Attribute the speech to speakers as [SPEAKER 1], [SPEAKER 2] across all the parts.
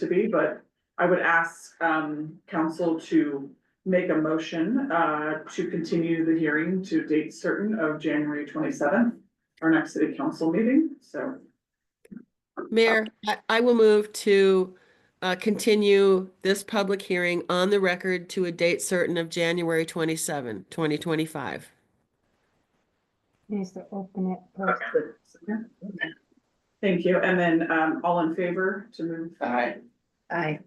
[SPEAKER 1] to be, but I would ask um council to make a motion uh to continue the hearing to date certain of January twenty seventh, our next city council meeting, so.
[SPEAKER 2] Mayor, I, I will move to uh, continue this public hearing on the record to a date certain of January 27, 2025.
[SPEAKER 3] Needs to open it first.
[SPEAKER 1] Okay. Thank you, and then um all in favor to move? Aye.
[SPEAKER 3] Aye.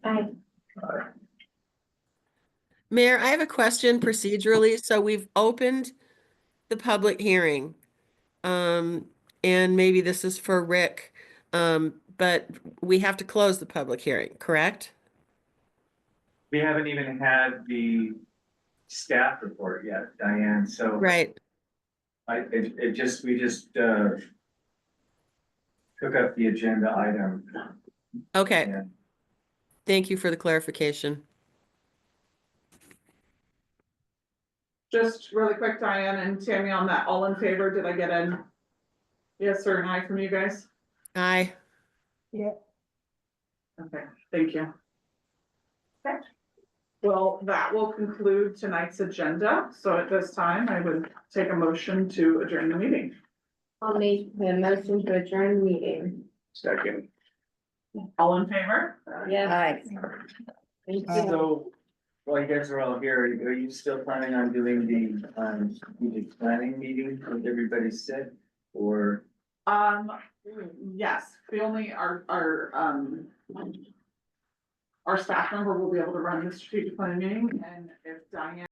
[SPEAKER 2] Mayor, I have a question procedurally. So we've opened the public hearing. Um, and maybe this is for Rick, um, but we have to close the public hearing, correct?
[SPEAKER 4] We haven't even had the staff report yet, Diane, so.
[SPEAKER 2] Right.
[SPEAKER 4] I, it, it just, we just, uh, took up the agenda item.
[SPEAKER 2] Okay.
[SPEAKER 4] Yeah.
[SPEAKER 2] Thank you for the clarification.
[SPEAKER 1] Just really quick, Diane and Tammy on that, all in favor, did I get an yes or an aye from you guys?
[SPEAKER 2] Aye.
[SPEAKER 3] Yeah,
[SPEAKER 1] Okay, thank you. Well, that will conclude tonight's agenda, so at this time, I would take a motion to adjourn the meeting.
[SPEAKER 5] I'll make the motion to adjourn meeting.
[SPEAKER 1] Second. All in favor?
[SPEAKER 5] Yes. Thank you.
[SPEAKER 4] So, while you guys are all here, are you still planning on doing the, um, strategic planning meeting with everybody said? Or,
[SPEAKER 1] Um, yes, the only, our, our, um, our staff member will be able to run the strategic planning meeting, and if Diane